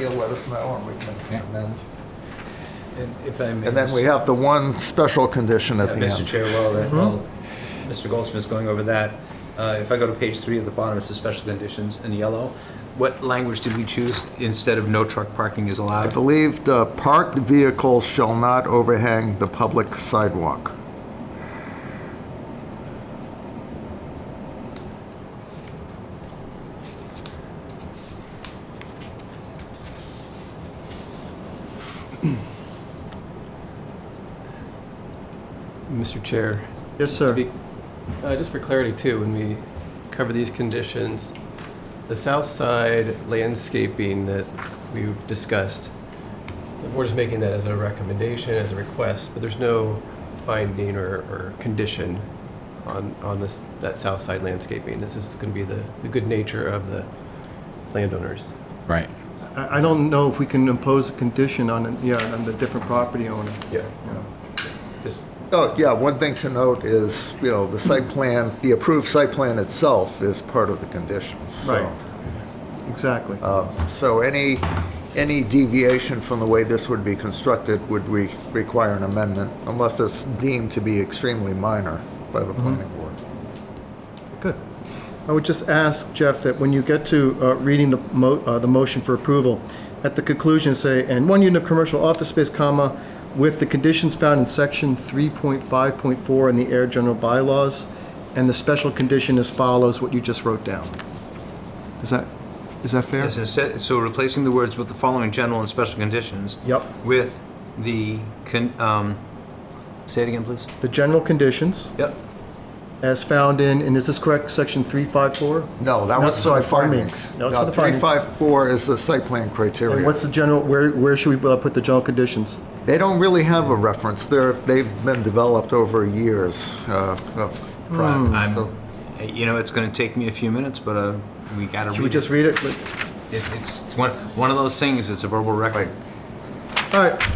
You'll let us know and we can Yeah. amend. And if I may. And then we have the one special condition at Uh, the Mr. end. Chair, while, Mm-hmm. that- while Mr. Goldsmith's going over that, uh, if I go to page three at the bottom, it says special conditions in yellow. What language did we choose instead of no truck parking is I allowed? believe the parked vehicles shall not overhang the public sidewalk. Mr. Chair, Yes, sir. be- uh, just for clarity too, when we cover these conditions, the south side landscaping that we've discussed, the board is making that as a recommendation, as a request, but there's no finding or, or condition on, on this, that south side landscaping. This is going to be the, the good nature of the landowners. Right. I I don't know if we can impose a condition on, an- yeah, on the different property owner. Yeah. Yeah. Just Oh, yeah, one thing to note is, you know, the site plan, the approved site plan itself is part of the conditions. so- um, Right. Exactly. Uh. So any, any deviation from the way this would be constructed would re- require an amendment unless it's deemed to be extremely minor by Mm-hmm. the planning board. Good. I would just ask, Jeff, that when you get to uh, reading the mo, uh, the motion for approval, at the conclusion, say, "and one unit of commercial office space, comma, with the conditions found in section 3.5.4 in the air general bylaws, and the special condition as follows," what you just wrote down. Is that, is that fair? Yes, instead- So replacing the words with the following general and special conditions. Yep. With the, con- um, say it again, please. The general conditions, Yep. as found in, and is this correct, section 354? No, that No, was so my the findings. findings. That was No, for the findings. 354 is the site plan And criteria. what's the general, where, where should we uh, put the general conditions? They don't really have a reference. They're, they've been developed over years uh, of Hmm. practice. so- Uh, You know, it's gonna take me a few minutes, but, uh, we gotta read it. Should we just read it? It- It's, it's one, one of those things, it's a verbal record. Right. All right.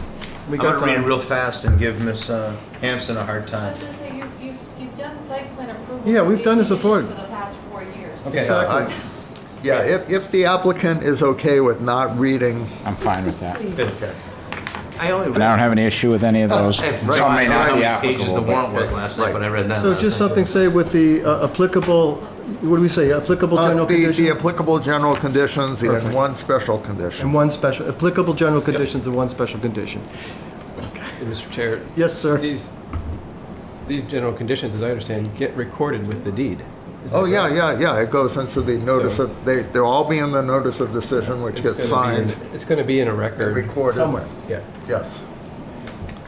We I'm got gonna read it time. real fast and give Miss uh, Hampson a hard I time. was gonna say, you've, you've, you've done site plan approval. Yeah, for we've these done this before. conditions For the past four years. Okay. Exactly. uh, I- Yeah, if, if the applicant is okay with not reading, uh, I'm fine with that. Please. I only read. And I don't have any issue with any of those. Oh, Hey, Some right, I may don't know not be how many pages the applicable, but- warrant was last night, but I read that. So last just night. something, say, with the uh, applicable, what do we say, applicable uh, general the, the conditions? applicable general conditions and Perfect. one special condition. And one special, applicable general conditions and one special condition. And Mr. Chair? Yes, sir. These, these general conditions, as I understand, get recorded with the deed. Is that Oh, yeah, correct? yeah, yeah, it goes into the notice So- of, they, they'll all be in the notice of decision, which gets It's gonna be in- signed It's going to be in a and record. recorded. Somewhere. Yeah. Yes.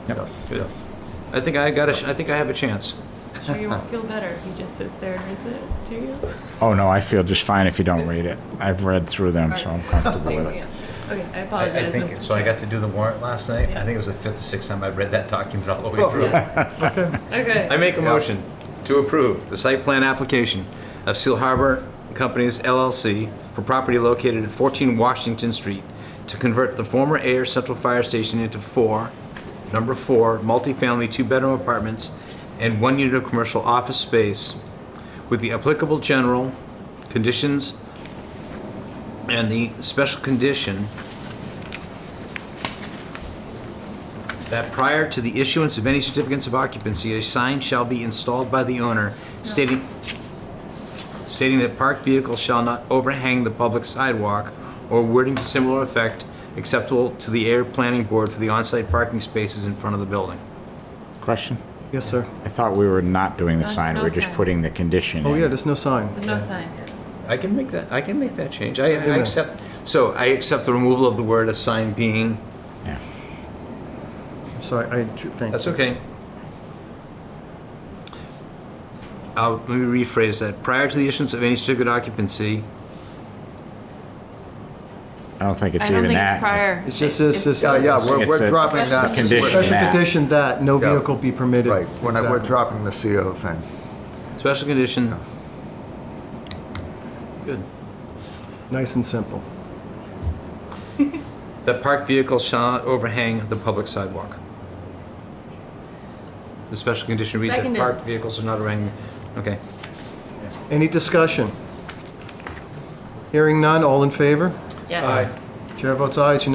Yep. Yes, Good. yes. I think I got a. sh- I think I have a chance. Sure you won't feel better if he just sits there and reads it, do you? Oh, no, I feel just fine if you don't read it. I've read through them, so I'm comfortable with it. Okay, I I, I apologize, think so. I got to do the warrant last night. I think it was the fifth or sixth time I've read that document all the way through. I Okay, make a motion to approve the site plan application of Seal Harbor Companies LLC for property located at 14 Washington Street to convert the former Air Central Fire Station into four, number four, multifamily two-bedroom apartments and one unit of commercial office space with the applicable general conditions and the special condition that prior to the issuance of any certificates of occupancy, a sign shall be installed by the owner stating, stating that parked vehicles shall not overhang the public sidewalk or wording to similar effect acceptable to the air planning board for the on-site parking spaces in front of the building. Question? Yes, sir. I thought we were not doing the No- sign, we no were just sign. putting the condition Oh, yeah, in. there's no sign. there's no sign. I can make that, I can make that change. I, I minute. accept, so I accept the removal of the word "a sign being," Yeah. Sorry, I, thank that's you. okay. Uh, let me rephrase that. Prior to the issuance of any certificate of occupancy, I don't think it's I don't even think it's that. prior. It's just- it's just- Yeah, yeah, we're, It's we're a dropping that. condition. we're- Special Nah. condition that no Yeah. vehicle be permitted. Right, we're not- we're Exactly. dropping the CO thing. Special condition. Good. Nice and simple. That parked vehicles shall not overhang the public sidewalk. The special condition reads that Seconded. parked vehicles are not overhanging, okay. Any discussion? Hearing none, all in favor? Yes. Chair votes aye, it's unanimous